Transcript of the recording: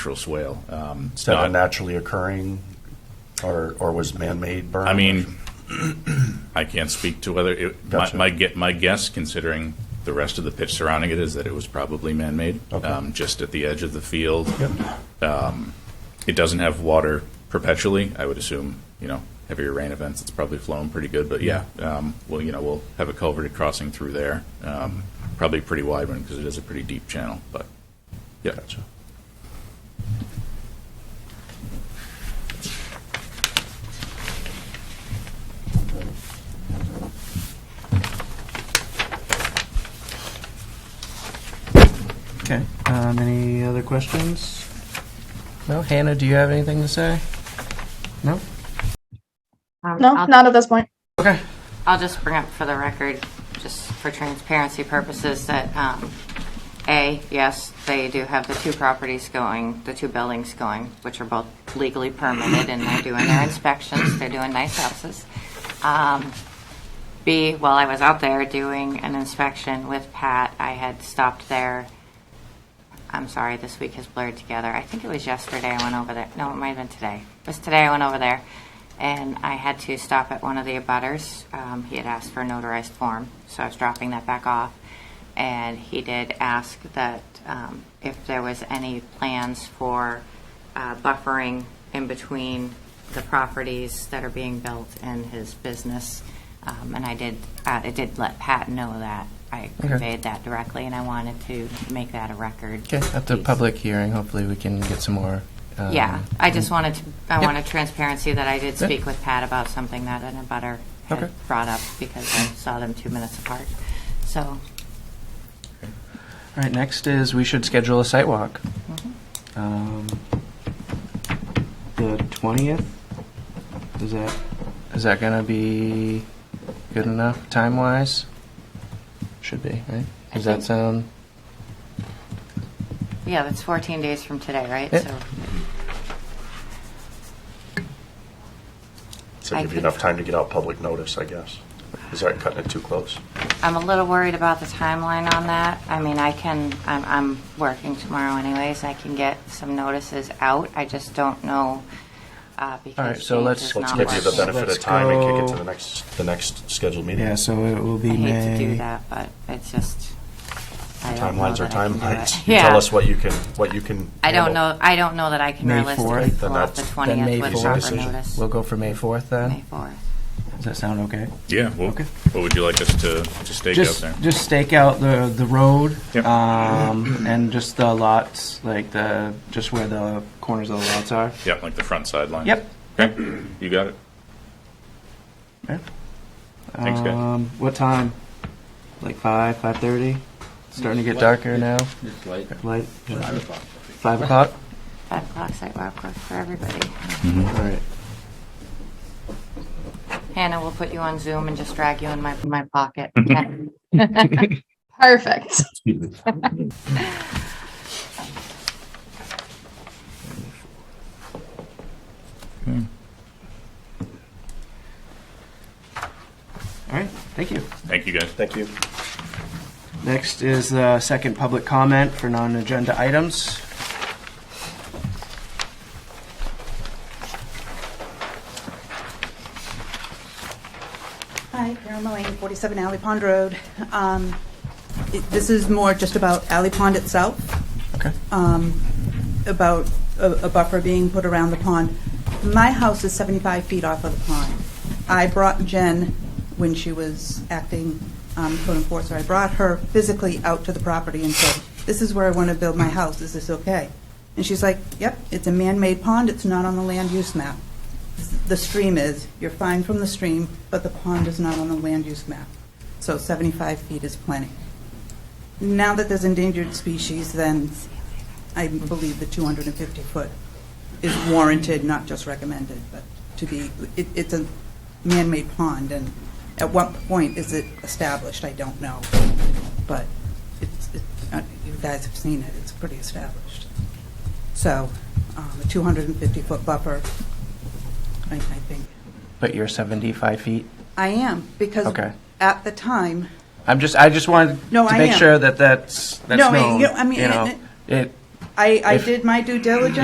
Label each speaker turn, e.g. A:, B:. A: natural swale. Um,
B: Is that a naturally occurring, or, or was man-made burn?
C: I mean, I can't speak to whether, it- my,
B: Gotcha.
C: my gue- my guess, considering the rest of the pitch surrounding it, is that it was probably man-made,
B: Okay.
C: um, just at the edge of the field.
B: Yep.
C: It doesn't have water perpetually, I would assume, you know, heavier rain events, it's probably flowing pretty good, but yeah, um, well, you know, we'll have a culverted crossing through there, um, probably a pretty wide one, because it is a pretty deep channel, but, yeah.
B: Gotcha.
D: Okay, um, any other questions? No, Hannah, do you have anything to say? No?
E: Um,
F: No,
E: I'll-
F: not at this point.
D: Okay.
E: I'll just bring up for the record, just for transparency purposes, that, um, A, yes, they do have the two properties going, the two buildings going, which are both legally permitted, and they're doing their inspections, they're doing nice houses. Um, B, while I was out there doing an inspection with Pat, I had stopped there. I'm sorry, this week has blurred together. I think it was yesterday I went over there. No, it might have been today. It was today I went over there, and I had to stop at one of the abutters. Um, he had asked for a notarized form, so I was dropping that back off. And he did ask that um, if there was any plans for uh, buffering in between the properties that are being built and his business. Um, and I did, uh, I did let Pat know that. I
D: Okay.
E: conveyed that directly, and I wanted to make that a record.
D: Okay, at the
E: piece.
D: public hearing, hopefully we can get some more. um,
E: Yeah, I just wanted to, I
D: Yep.
E: wanted transparency that I did
D: Yeah.
E: speak with Pat about something that an abutter had
D: Okay. Mm.
E: brought up because I saw them two minutes apart. So,
D: All right, next is we should schedule a site walk.
E: Mm-hmm.
D: Um, The 20th? Is that, is that going to be good enough time-wise? Should be, right?
E: I
D: Does that
E: think-
D: sound?
E: yeah, that's 14 days from today, right?
D: Yep.
E: So
B: So
E: I
B: give you
E: could-
B: enough time to get out public notice, I guess. Is that cutting it too close?
E: I'm a little worried about the timeline on that. I mean, I can, I'm, I'm working tomorrow anyways, I can get some notices out. I just don't know, uh,
D: All right,
E: because
D: so let's-
E: James is
B: Let's
E: not
B: give you the
E: working.
B: benefit of
D: Let's
B: time and kick it to
D: go-
B: the next, the next scheduled meeting.
D: so it will be
E: I hate to do that, but it's just, I don't know
B: Timelines are
E: that I can do it.
B: timelines. You Tell
E: Yeah.
B: us what you can, what you can.
E: I don't
B: handle.
E: know, I don't know that I can
D: May
E: realistically
D: 4th,
E: pull
B: then
E: off the
B: that's-
D: then May
E: twentieth with
D: 4th.
E: proper
B: Decision.
E: notice.
D: We'll go for May 4th
E: May
D: then?
E: fourth.
D: Does that sound okay?
C: Yeah, well,
D: Okay.
C: what would you like us to, to stake out
D: Just,
C: there?
D: just stake out the, the road,
C: Yep.
D: um, and just the lots, like the, just where the corners of the lots are.
C: Yeah, like the front sideline?
D: Yep.
C: Okay, you got it. Thanks, guys.
D: Um, what time? Like five, five thirty? Starting to get darker now,
G: It's late.
D: light? Five o'clock?
E: Five o'clock sidewalk work for everybody.
D: All right.
E: Hannah, we'll put you on Zoom and just drag you in my, my pocket.
F: Perfect.
D: All right, thank you.
C: Thank you, guys.
B: Thank you.
D: Next is the second public comment for non-agenda items.
H: Hi, Carol Mullane, 47 Alley Pond Road. Um, it- This is more just about Alley Pond itself,
D: Okay.
H: um, about a a buffer being put around the pond. My house is 75 feet off of the pond. I brought Jen, when she was acting um, code enforcer, I brought her physically out to the property and said, "This is where I want to build my house. Is this okay?" And she's like, "Yep, it's a man-made pond. It's not on the land use map." the stream is, you're fine from the stream, but the pond is not on the land use map. So 75 feet is plenty. Now that there's endangered species, then I believe the 250-foot is warranted, not just recommended, but to be, it- it's a man-made pond, and at what point is it established? I don't know. But it's, it- uh, you guys have seen it, it's pretty established. So um, a 250-foot buffer I I think.
D: But you're seventy-five feet?
H: I am, because
D: Okay.
H: at the time,
D: I'm just, I just wanted
H: No,
D: to
H: I
D: make
H: am.
D: sure that that's, that's
H: No, I-
D: known,
H: you know, I mean,
D: you
H: it-
D: know.
H: it-
D: It,
H: I, I
D: If-
H: did my due diligence.